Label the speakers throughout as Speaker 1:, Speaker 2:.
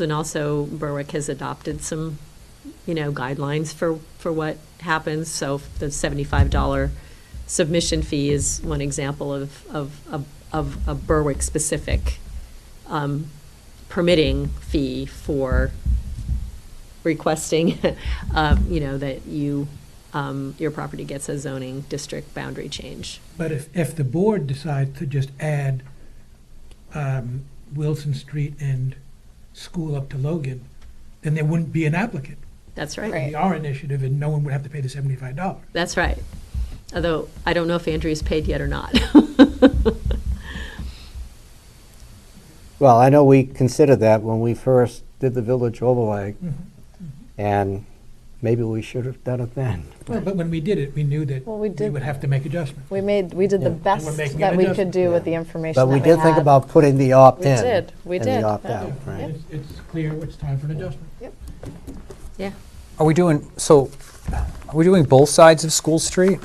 Speaker 1: And also Berwick has adopted some, you know, guidelines for, for what happens. So the seventy-five dollar submission fee is one example of, of, of- of a Berwick-specific um, permitting fee for requesting, uh, you know, that you, um, your property gets a zoning district boundary change.
Speaker 2: But if, if the board decides to just add um, Wilson Street and school up to Logan, then there wouldn't be an applicant.
Speaker 1: That's right.
Speaker 2: It'd be our initiative, and no one would have to pay the seventy-five dollars.
Speaker 1: That's right. Although, I don't know if Andrea's paid yet or not.
Speaker 3: Well, I know we considered that when we first did the village overlay, and maybe we should have done it then.
Speaker 2: Well, but when we did it, we knew that
Speaker 4: Well, we
Speaker 2: we
Speaker 4: did-
Speaker 2: would have to make adjustments.
Speaker 4: We made, we did the
Speaker 3: Yeah. And
Speaker 2: we're
Speaker 4: best
Speaker 2: making
Speaker 4: that
Speaker 2: an
Speaker 4: we could
Speaker 2: adjustment.
Speaker 4: do with the information
Speaker 3: But
Speaker 4: that we
Speaker 3: we
Speaker 4: had.
Speaker 3: did think about putting the opt-in.
Speaker 4: We did, we
Speaker 3: And
Speaker 4: did.
Speaker 3: the opt-out, right.
Speaker 2: It's it's clear it's time for an adjustment.
Speaker 1: Yeah.
Speaker 5: Are we doing, so, are we doing both sides of School Street?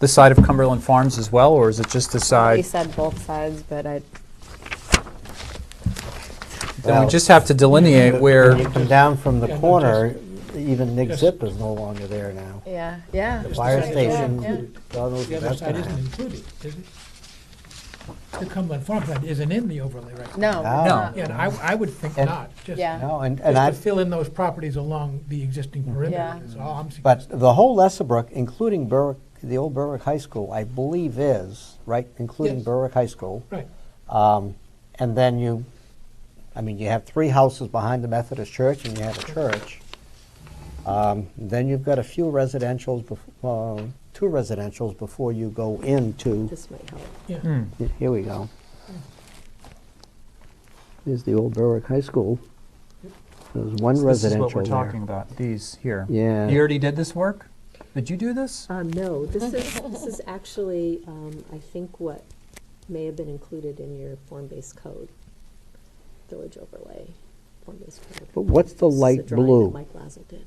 Speaker 5: The side of Cumberland Farms as well, or is it just the
Speaker 4: We
Speaker 5: side?
Speaker 4: said both sides, but I,
Speaker 5: Then we just have to delineate
Speaker 3: When you
Speaker 5: where,
Speaker 3: come down from the
Speaker 2: Yeah, no,
Speaker 3: corner, even Nick
Speaker 2: Yes.
Speaker 3: Zip is no longer there now.
Speaker 4: yeah, yeah.
Speaker 3: The Fire
Speaker 2: Just the side is
Speaker 3: station,
Speaker 2: included.
Speaker 3: God knows
Speaker 2: The
Speaker 3: what
Speaker 2: other
Speaker 3: that's
Speaker 2: side
Speaker 3: gonna
Speaker 2: isn't
Speaker 3: happen.
Speaker 2: included, is it? The Cumberland Farmland isn't in the overlay right now.
Speaker 4: No, we're
Speaker 3: No.
Speaker 4: not.
Speaker 2: Yeah, and I, I would think
Speaker 3: And-
Speaker 2: not, just,
Speaker 4: Yeah.
Speaker 3: No, and, and I,
Speaker 2: just to fill in those properties along the existing perimeter
Speaker 4: Yeah.
Speaker 2: is all I'm suggesting.
Speaker 3: but the whole Lesserbrook, including Berwick, the old Berwick High School, I believe is, right, including
Speaker 2: Yes.
Speaker 3: Berwick High School.
Speaker 2: Right.
Speaker 3: Um, And then you, I mean, you have three houses behind the Methodist church and you have a church. Um, Then you've got a few residentials, bef- uh, two residentials before you go into,
Speaker 1: This might help.
Speaker 5: Hmm,
Speaker 2: Yeah.
Speaker 3: here we go. Here's the old Berwick High School. There's one
Speaker 5: this is
Speaker 3: residential
Speaker 5: what we're
Speaker 3: there.
Speaker 5: talking about, these here.
Speaker 3: Yeah.
Speaker 5: You already did this work? Did you do this?
Speaker 1: Um, no, this is, this is actually, um, I think what may have been included in your form-based code, village overlay, form-based code.
Speaker 3: But what's the
Speaker 1: This is a
Speaker 3: light
Speaker 1: drawing that
Speaker 3: blue?
Speaker 1: Mike Lazzle did.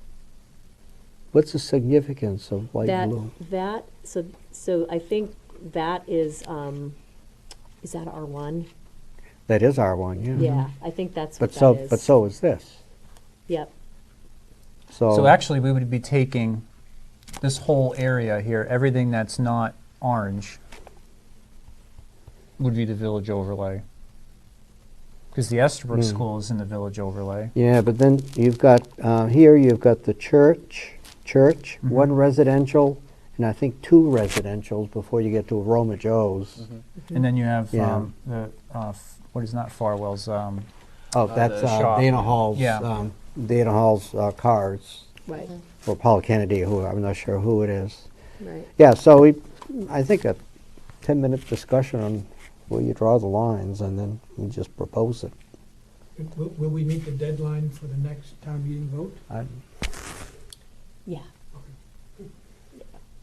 Speaker 3: What's the significance of light
Speaker 1: That,
Speaker 3: blue?
Speaker 1: that, so, so I think that is, um, is that R one?
Speaker 3: That is R1, yeah.
Speaker 1: Yeah, I think that's what
Speaker 3: Mm-hmm. But so,
Speaker 1: that is.
Speaker 3: but so is this.
Speaker 1: Yep,
Speaker 3: So.
Speaker 5: So actually, we would be taking this whole area here, everything that's not orange would be the village overlay. Because the Estabrook School is in the village overlay.
Speaker 3: Yeah, but then you've got, uh, here you've got the church, church, one residential, and I think two residentials before you get to Roma Joe's.
Speaker 5: And then you have
Speaker 3: Yeah.
Speaker 5: um, the, uh, f- what is not Farwell's, um,
Speaker 3: Oh, that's
Speaker 5: the
Speaker 3: uh,
Speaker 5: shop.
Speaker 3: Dana Hall's,
Speaker 5: Yeah.
Speaker 3: um, Dana Hall's uh, cars,
Speaker 1: right,
Speaker 3: or Paul Kennedy, who, I'm not sure who it is.
Speaker 4: Mm-hmm.
Speaker 1: right.
Speaker 3: Yeah, so we, I think a 10-minute discussion on where you draw the lines, and then we just propose it.
Speaker 2: Will, will we meet the deadline for the next town meeting vote?
Speaker 3: I-
Speaker 1: Yeah.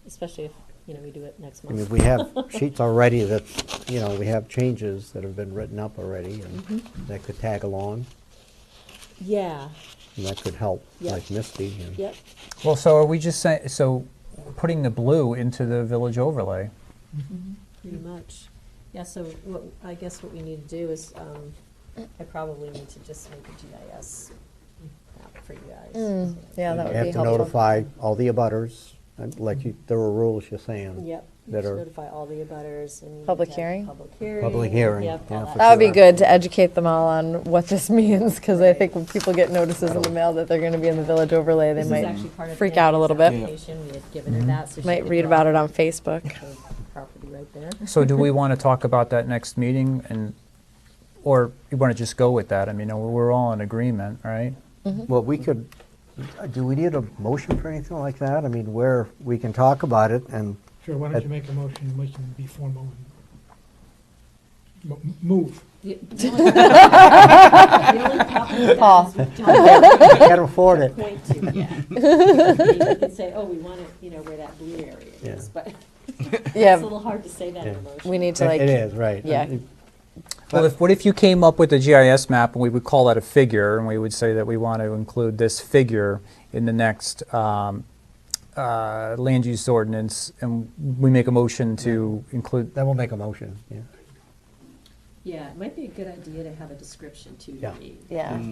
Speaker 1: Especially if, you know, we do it next
Speaker 3: I mean,
Speaker 1: month.
Speaker 3: we have sheets already that, you know, we have changes that have been written up already, and that could tag along.
Speaker 1: Mm-hmm. Yeah,
Speaker 3: And that could help,
Speaker 1: Yeah.
Speaker 3: like Misty. and-
Speaker 1: yep,
Speaker 5: Well, so are we just saying, so putting the blue into the village overlay?
Speaker 1: pretty much. Yeah, so what, I guess what we need to do is, um, I probably need to just make a GIS map for you guys.
Speaker 4: Mm, Yeah, that
Speaker 3: You
Speaker 4: would be
Speaker 3: have to
Speaker 4: helpful.
Speaker 3: notify all the abutters, and like you, there were rules you're saying.
Speaker 1: Yep, you
Speaker 3: That
Speaker 1: just
Speaker 3: are-
Speaker 1: notify all the abutters and. you
Speaker 4: Public
Speaker 1: have
Speaker 4: hearing?
Speaker 1: Public hearing.
Speaker 3: hearing,
Speaker 1: Yep,
Speaker 3: yeah,
Speaker 1: all
Speaker 3: for
Speaker 4: That would be
Speaker 3: Sure.
Speaker 4: good to educate them all on what this means, because I think when people get notices in the mail that they're going to be in the village overlay, they
Speaker 1: This is actually
Speaker 4: might
Speaker 1: part of
Speaker 4: freak
Speaker 1: Annie's
Speaker 4: out a little bit,
Speaker 1: application. We had given her that, so she
Speaker 4: might
Speaker 1: could
Speaker 4: read
Speaker 1: draw
Speaker 4: about it on Facebook.
Speaker 1: the Property right there.
Speaker 5: So do we want to talk about that next meeting and, or you want to just go with that? I mean, we're we're all in agreement, right?
Speaker 3: Mm-hmm. Well, we could, uh, do we need a motion for anything like that? I mean, where, we can talk about it, and,
Speaker 2: Sure, why don't you make a motion, we can be formal and mo- move.
Speaker 1: The the only the only problem with that is we don't
Speaker 3: I can't afford it.
Speaker 1: point to yet. You can say, oh, we want it, you know, where that blue area
Speaker 3: Yeah.
Speaker 1: is, but it's a
Speaker 4: Yeah,
Speaker 1: little hard to say that in a motion.
Speaker 4: we need to
Speaker 3: It
Speaker 4: like,
Speaker 3: is, right.
Speaker 4: yeah.
Speaker 3: And-
Speaker 5: Well, if, what if you came up with a GIS map and we would call that a figure and we would say that we want to include this figure in the next um, uh, land use ordinance and we make a motion to include,
Speaker 3: Then we'll make a motion, yeah.
Speaker 1: Yeah, it might be a good idea to have a description too, to
Speaker 6: Yeah.
Speaker 1: read.
Speaker 3: Mm.
Speaker 4: yeah.